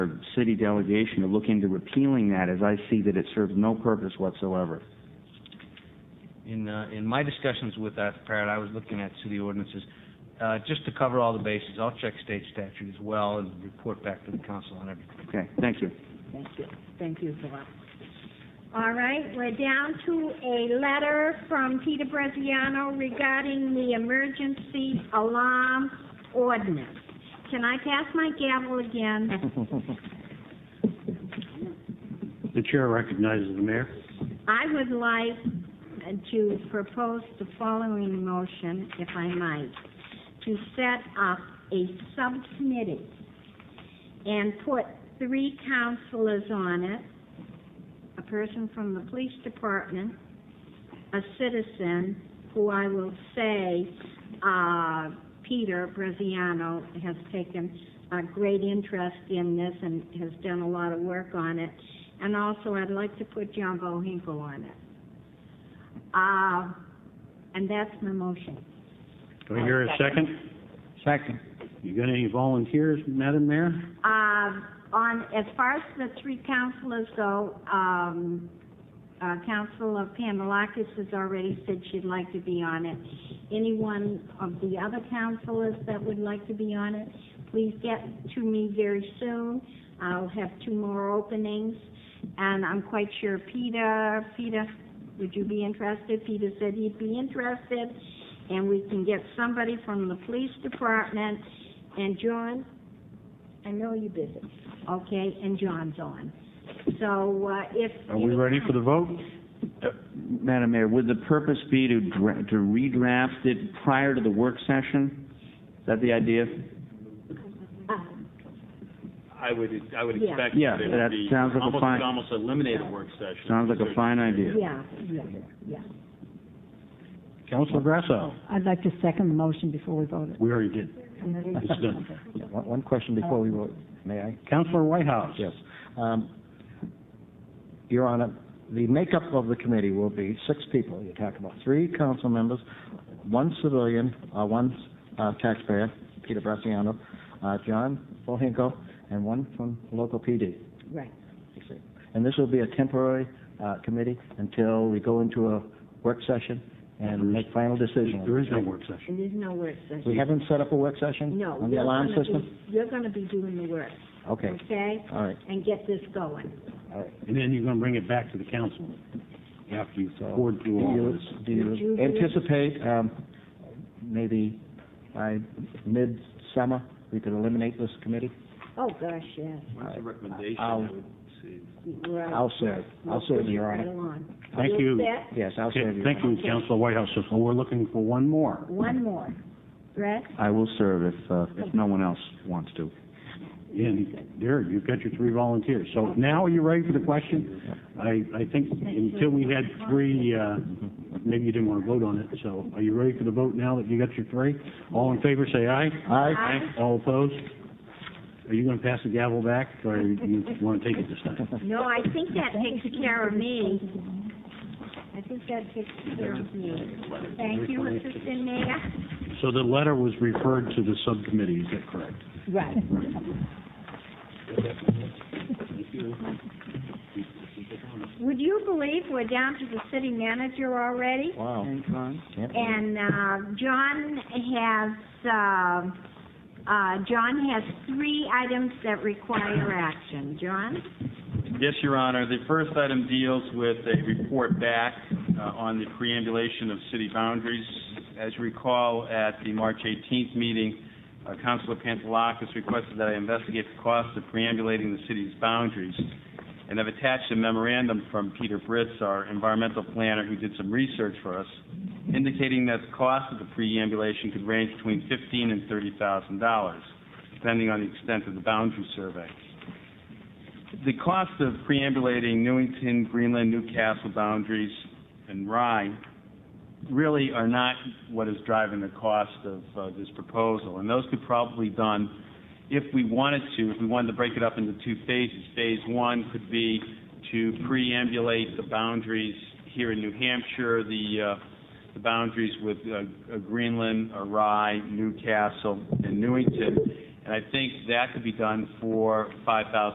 city delegation to look into repealing that, as I see that it serves no purpose whatsoever. In, uh, in my discussions with Arthur Parrott, I was looking at city ordinances, uh, just to cover all the bases, I'll check state statute as well and report back to the council on everything. Okay, thank you. Thank you, thank you, Zala. All right, we're down to a letter from Peter Braziano regarding the emergency alarm ordinance. Can I pass my gavel again? The chair recognizes the mayor. I would like to propose the following motion, if I might, to set up a subcommittee and put three counselors on it, a person from the police department, a citizen, who I will say, uh, Peter Braziano has taken a great interest in this and has done a lot of work on it, and also, I'd like to put John Bohinkle on it. Uh, and that's my motion. Do I hear a second? Second. You got any volunteers, Madam Mayor? Uh, on, as far as the three councilors go, um, uh, Councilor Panalakis has already said she'd like to be on it. Anyone of the other councilors that would like to be on it, please get to me very soon. I'll have two more openings, and I'm quite sure Peter, Peter, would you be interested? Peter said he'd be interested, and we can get somebody from the police department. And John, I know you're busy, okay, and John's on. So, uh, if... Are we ready for the vote? Madam Mayor, would the purpose be to dra- to redraft it prior to the work session? Is that the idea? Uh, I would, I would Yeah. expect Yeah, that it that would be, sounds like a almost, fine- would almost eliminate a work session. Sounds like a fine idea. Yeah, yeah, yeah. Councilor Grasso? I'd like to second the motion before we vote it. We already did. It's done. Yeah, One, one question before we vote, may I? Councilor Whitehouse? Yes. Um, Your Honor, the makeup of the committee will be six people. You're talking about three council members, one civilian, uh, one uh, taxpayer, Peter Braziano, uh, John Bohinko, and one from local PD. Right. you see. And this will be a temporary uh, committee until we go into a work session and make final decisions. There is no work session. And there's no work session. We haven't set up a work session No. on the you're alarm gonna be- system? You're gonna be doing the work, Okay, okay? all right, And get this going. all right. And then you're going to bring it back to the council after you've poured Do through all you, this. do Would you you do- anticipate, um, maybe by mid-summer, we could eliminate this committee? Oh, gosh, yes. What's the recommendation? I I'll- would see. Right. I'll serve, I'll serve, Your Right Honor. along. Thank you. You're set. Yes, I'll Okay, serve, Your Honor. Thank you, Councilor Whitehouse. So we're looking for one more. One more. Brett? I will serve if, uh, if no one else wants to. And there, you've got your three volunteers. So now are you ready for the question? I, I think until we had three, uh, maybe you didn't want to vote on it, so are you ready for the vote now that you got your three? All in favor, say aye. Aye. All opposed? Are you going to pass the gavel back, or you want to take it this time? No, I think that takes care of me. I think that takes care of me. Thank you, Assistant Mayor. So the letter was referred to the subcommittee, is that correct? Right. Would you believe we're down to the city manager already? Wow. Can't believe it. And, uh, John has, uh, uh, John has three items that require action. John? Yes, Your Honor. The first item deals with a report back uh, on the preambulation of city boundaries. As you recall, at the March 18th meeting, uh, Councilor Pantelakis requested that I investigate the cost of preambulating the city's boundaries. And I've attached a memorandum from Peter Britz, our environmental planner, who did some research for us, indicating that the cost of the preambulation could range between $15,000 and $30,000, depending on the extent of the boundary survey. The cost of preambulating Newington, Greenland, Newcastle boundaries, and Rye really are not what is driving the cost of uh, this proposal. And those could probably be done if we wanted to, if we wanted to break it up into two phases. Phase one could be to preambulate the boundaries here in New Hampshire, the, uh, the boundaries with uh, uh, Greenland, uh, Rye, Newcastle, and Newington. And I think that could be done for five thousand.